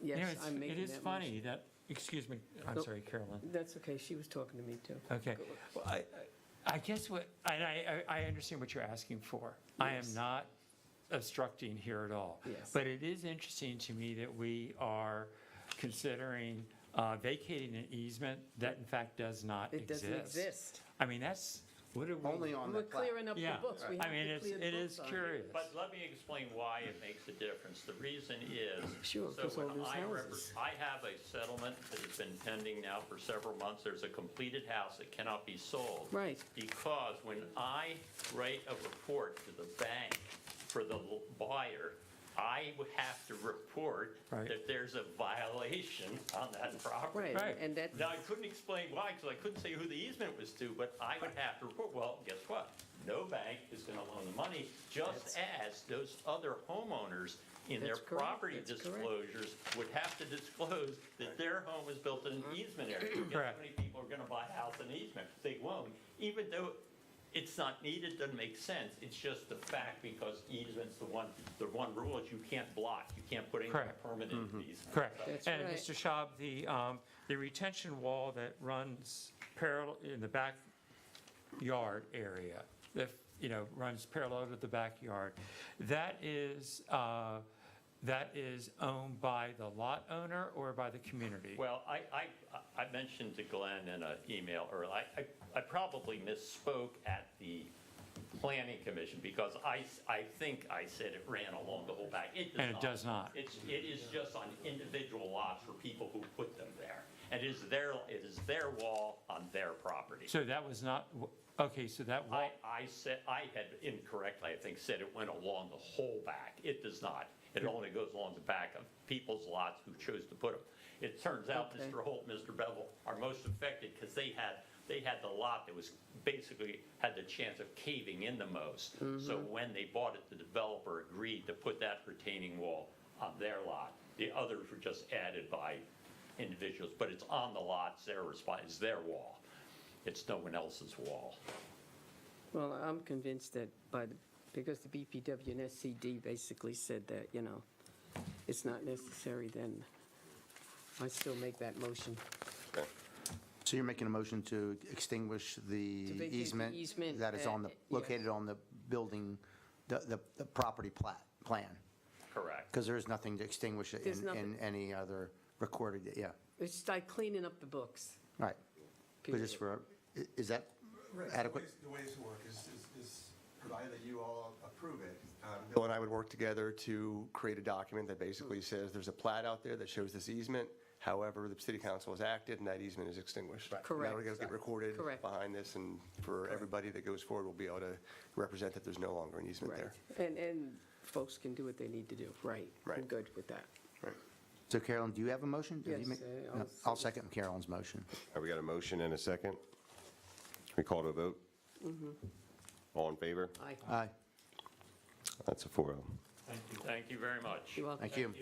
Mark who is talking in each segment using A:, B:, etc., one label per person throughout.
A: Yes,
B: Anyways,
A: I'm making that
B: It is
A: motion.
B: funny that, excuse me, I'm
A: Nope.
B: sorry, Carolyn.
A: That's okay, she was talking to me too.
B: Okay. Well, I, I- I guess what, and I, I I understand what you're asking for. I am
A: Yes.
B: not obstructing here at all.
A: Yes.
B: But it is interesting to me that we are considering uh, vacating an easement that in fact does not
A: It
B: exist.
A: doesn't exist.
B: I mean, that's, what are we?
C: Only on the
A: We're
C: plat.
A: clearing up the
B: Yeah,
A: books. We
B: I
A: have
B: mean,
A: to
B: it's,
A: clear the
B: it
A: books
B: is
A: on
B: curious.
D: But let me explain why it makes a difference. The reason is.
A: Sure,
D: so
A: 'cause all
D: when
A: those
D: I repre-
A: houses.
D: I have a settlement that has been pending now for several months. There's a completed house that cannot be sold.
A: Right.
D: Because when I write a report to the bank for the l- buyer, I would have to report
B: Right.
D: that there's a violation on that
A: Right,
D: property.
B: Right.
A: and that,
D: Now, I couldn't explain why, because I couldn't say who the easement was to, but I would have to report, well, guess what? No bank is gonna loan the money, just as those other homeowners in their
A: That's correct,
D: property
A: that's correct.
D: disclosures would have to disclose that their home was built in
A: Mm-hmm.
D: an easement area. Guess
B: Correct.
D: How many people are gonna buy a house in easement? They won't, even though it's not needed, doesn't make sense, it's just the fact, because easement's the one, the one rule is you can't block, you can't put anything
B: Correct. Mm-hmm.
D: permanent in the easement. So-
B: Correct.
A: That's
B: And
A: right.
B: Mr. Schaub, the, um, the retention wall that runs parallel, in the backyard area, that, you know, runs parallel to the backyard, that is, uh, that is owned by the lot owner or by the community?
D: Well, I, I, I mentioned to Glenn in an email earlier, I, I- I probably misspoke at the planning commission because I, s- I think I said it ran along the whole back.
B: And it does not.
D: It's, it is just on individual lots for people who put them there. And it is their, it is their wall on their property.
B: So that was not, okay, so that wall,
D: I, I said, I had incorrectly, I think, said it went along the whole back. It does not. It only goes along the back of people's lots who chose to put them. It turns out
A: Okay.
D: Mr. Holt, Mr. Bevel are most affected because they had, they had the lot that was basically had the chance of caving in the most. So when they bought it, the developer agreed to put that retaining wall on their lot. The others were just added by individuals, but it's on the lots, their response, it's their wall. It's no one else's wall.
A: well, I'm convinced that, but, because the BPW and SCD basically said that, you know, it's not necessary, then I still make that motion.
C: So you're making a motion to extinguish the
A: To vacate the
C: easement?
A: easement,
C: That is on
A: uh,
C: the,
A: yeah.
C: located on the building, the, the, the property plat, plan?
D: Correct.
C: Because there is nothing to extinguish it
A: There's
C: in, in
A: nothing.
C: any other recorded, yeah,
A: It's like cleaning up the books.
C: right. But just
A: period.
C: for, i- is that
E: Right, the
C: adequate?
E: ways- The ways to work is, is- is provided that you all approve it. um, Bill and I would work together to create a document that basically says there's a plat out there that shows this easement. However, the city council has acted and that easement is extinguished.
A: Correct.
E: Now it'll get recorded
A: Correct.
E: behind this and for everybody that goes forward, will be able to represent that there's no longer an easement
A: Right,
E: there.
A: and, and folks can do what they need to do, right. I'm
E: Right.
A: good with that.
E: Right.
C: So Carolyn, do you have a motion? Did you
A: Yes,
C: make-
A: uh,
C: no,
A: I'll-
C: I'll second Carolyn's motion.
F: Have we got a motion and a second? We call to a vote? All in favor?
A: Aye.
C: Aye,
F: That's a oh. 4-0.
D: Thank you very much.
A: You're welcome.
C: thank you.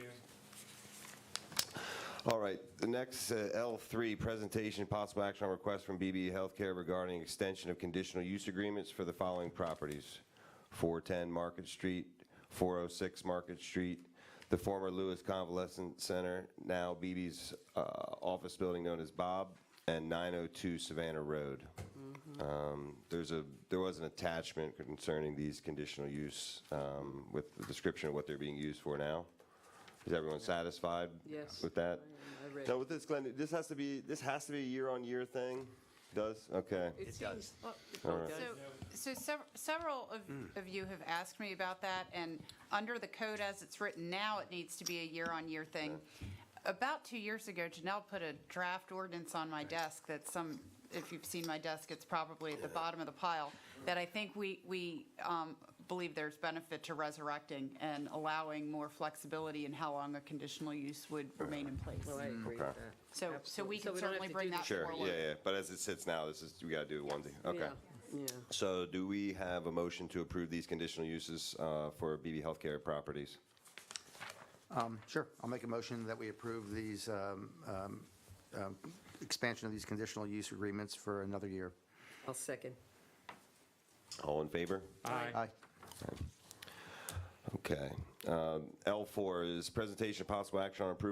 F: All right, the next, uh, L3, presentation, possible action on request from BB Healthcare regarding extension of conditional use agreements for the following properties. 410 Market Street, 406 Market Street, the former Lewis Convalescent Center, now BB's uh, office building known as Bob, and 902 Savannah Road. Um, There's a, there was an attachment concerning these conditional use um, with the description of what they're being used for now. Is everyone satisfied?
A: Yes.
F: With that?
A: I read
F: Now
A: it.
F: with this, Glenn, this has to be, this has to be a year-on-year thing? Does? Okay.
A: It seems, oh, it
F: All right.
A: does.
G: So, so sev- several
F: Hmm.
G: of, of you have asked me about that, and under the code as it's written now, it needs to be a year-on-year thing. About two years ago, Janelle put a draft ordinance on my desk that some, if you've seen my desk, it's probably at the bottom of the pile, that I think we, we um, believe there's benefit to resurrecting and allowing more flexibility in how long a conditional use would remain in place.
A: Well, I agree with that.
G: So, so
A: Absolutely.
G: we
A: So
G: can
A: we don't have
G: certainly
A: to
G: bring
A: do
G: that
A: this-
F: Sure,
G: forward.
F: yeah, yeah, but as it sits now, this is, we gotta do one thing, okay.
A: Yeah,
F: So do we have a motion to approve these conditional uses uh, for BB Healthcare properties?
C: Sure, I'll make a motion that we approve these, um, um, um, expansion of these conditional use agreements for another year.
A: I'll second.
F: All in favor?
B: I,
C: Aye.
F: Okay. Um, L4 is presentation of possible action on approval